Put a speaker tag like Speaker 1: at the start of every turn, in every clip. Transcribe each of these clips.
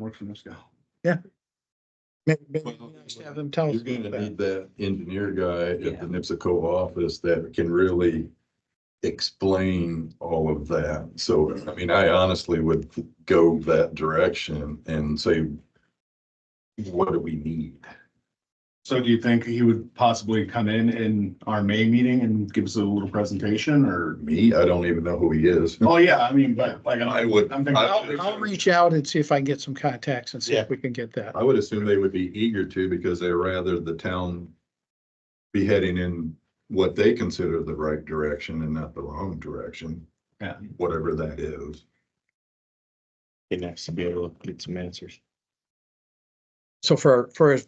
Speaker 1: work for this guy.
Speaker 2: Maybe- maybe it'd be nice to Have them tell us.
Speaker 3: You're
Speaker 2: about
Speaker 3: gonna
Speaker 2: that.
Speaker 3: need that engineer guy
Speaker 4: Yeah.
Speaker 3: at the NIPSCO office that can really explain all of that. So, I mean, I honestly would go that direction and say, what do we need?
Speaker 1: So do you think he would possibly come in in our May meeting and give us a little presentation or?
Speaker 3: Me, I don't even know who he is.
Speaker 1: Oh, yeah, I mean, but like,
Speaker 3: I
Speaker 1: I
Speaker 3: would,
Speaker 1: I'm thinking-
Speaker 2: I'll, I'll reach out and see if I can get some contacts and see
Speaker 1: Yeah.
Speaker 2: if we can get that.
Speaker 3: I would assume they would be eager to because they're rather the town be heading in what they consider the right direction and not the wrong direction.
Speaker 1: Yeah.
Speaker 3: Whatever that is.
Speaker 5: It'd be nice to be able to get some answers.
Speaker 2: So for, for.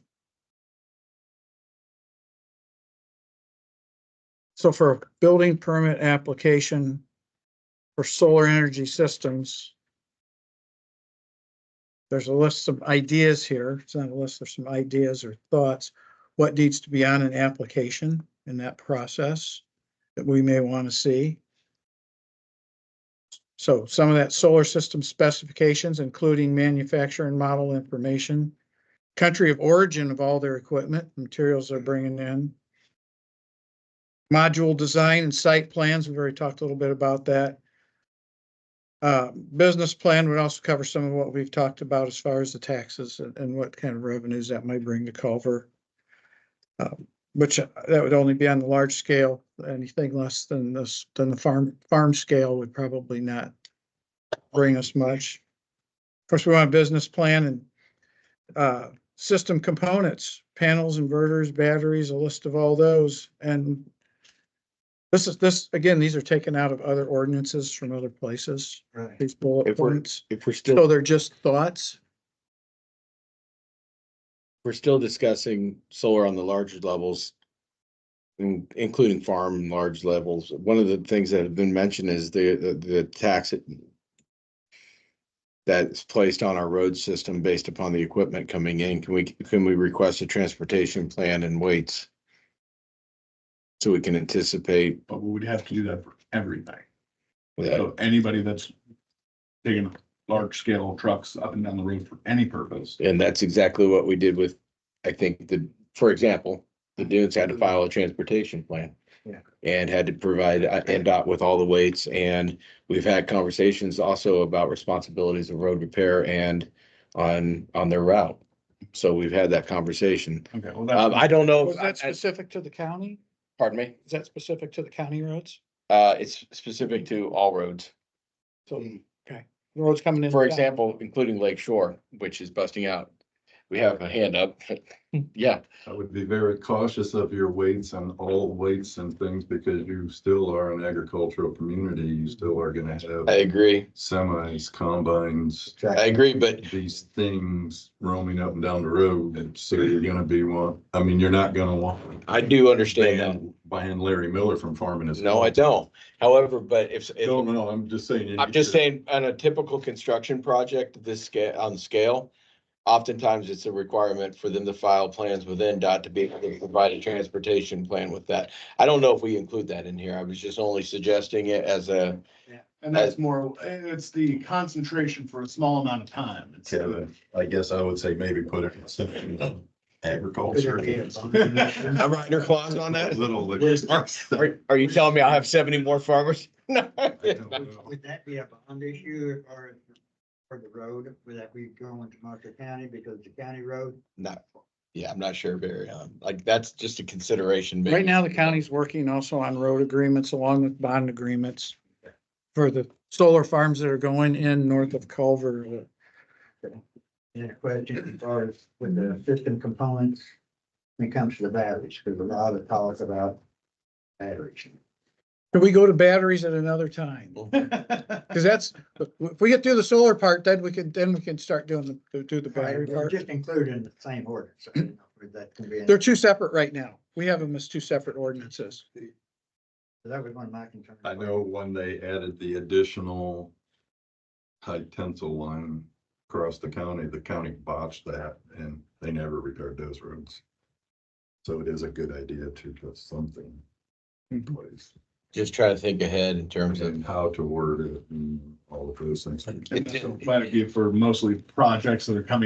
Speaker 2: So for a building permit application for solar energy systems. There's a list of ideas here. It's not a list, there's some ideas or thoughts. What needs to be on an application in that process that we may want to see? So some of that solar system specifications, including manufacturer and model information country of origin of all their equipment, materials they're bringing in. Module design and site plans, we've already talked a little bit about that. Uh, business plan would also cover some of what we've talked about as far as the taxes and, and what kind of revenues that might bring to Culver. Uh, Which uh, that would only be on the large scale, anything less than this, than the farm, farm scale would probably not bring us much. Of course, we want a business plan and uh, system components, panels, inverters, batteries, a list of all those. And this is, this, again, these are taken out of other ordinances from other places,
Speaker 1: Right.
Speaker 2: these bullet
Speaker 5: If we're-
Speaker 2: points.
Speaker 5: If we're still,
Speaker 2: So
Speaker 5: if
Speaker 2: they're just thoughts.
Speaker 5: we're still discussing solar on the larger levels, in- including farm and large levels, one of the things that have been mentioned is the, the- the tax that's placed on our road system based upon the equipment coming in. Can we, can we request a transportation plan and weights? So we can anticipate
Speaker 1: But we would have to do that for everything.
Speaker 5: that.
Speaker 1: So anybody that's taking large scale trucks up and down the road for any purpose.
Speaker 5: And that's exactly what we did with, I think, the, for example, the dunes had to file a transportation plan.
Speaker 1: Mm-hmm. Yeah.
Speaker 5: And had to provide uh, NDOT with all the weights, and we've had conversations also about responsibilities of road repair and on, on their route. So we've had that conversation.
Speaker 1: Okay, well,
Speaker 5: Um,
Speaker 1: that's,
Speaker 5: I don't know,
Speaker 2: Was
Speaker 5: if- I-
Speaker 2: that
Speaker 5: I-
Speaker 2: specific to the county?
Speaker 5: pardon me,
Speaker 2: Is that specific to the county roads?
Speaker 5: uh, it's specific to all roads.
Speaker 2: So, okay, roads coming in.
Speaker 5: For example, including Lake Shore, which is busting out. We have a hand up, yeah,
Speaker 3: I would be very cautious of your weights on all weights and things because you still are an agricultural community. You still are gonna
Speaker 5: I
Speaker 3: have
Speaker 5: agree,
Speaker 3: semis, combines,
Speaker 5: I agree, but
Speaker 3: these things roaming up and down the road. And so you're
Speaker 5: Mm-hmm.
Speaker 3: gonna be one, I mean, you're not gonna want.
Speaker 5: I do understand that.
Speaker 3: Buying Larry Miller from farming his.
Speaker 5: No, I don't. However, but if, if-
Speaker 3: No, no, I'm just saying.
Speaker 5: I'm just saying, on a typical construction project, of this scale, on scale, oftentimes it's a requirement for them to file plans with NDOT to be able to provide a transportation plan with that. I don't know if we include that in here. I was just only suggesting it as a,
Speaker 1: and that's more, it's the concentration for a small amount of time. It's-
Speaker 3: Kevin, I guess I would say maybe put it in section of agriculture.
Speaker 5: I'm writing her clause on that.
Speaker 3: Little.
Speaker 5: Are, are you telling me I have seventy more farmers? No.
Speaker 6: Would that be a bond issue or for the road, would that be going to Marshall County because it's a county road?
Speaker 5: Not, yeah, I'm not sure, Barry. Um, Like, that's just a consideration. maybe.
Speaker 2: Right now, the county's working also on road agreements along with bond agreements for the solar farms that are going in north of Culver. uh,
Speaker 6: And a question as far as with the system components, when it comes to the batteries, because a lot of talk about batteries.
Speaker 2: Can we go to batteries at another time? Cause that's, if we get through the solar part, then we can, then we can start doing the, do the battery
Speaker 6: They're
Speaker 2: part.
Speaker 6: Just included in the same order, so I don't know if that can be, in-
Speaker 2: They're two separate right now. We have them as two separate ordinances.
Speaker 6: that was one of my concerns.
Speaker 3: I know when they added the additional high tensile line across the county, the county botched that and they never repaired those roads. So it is a good idea to put something in place.
Speaker 5: just try to think ahead in terms of.
Speaker 3: and how to word it and all of those things.
Speaker 1: And so Glad to be for mostly projects that are coming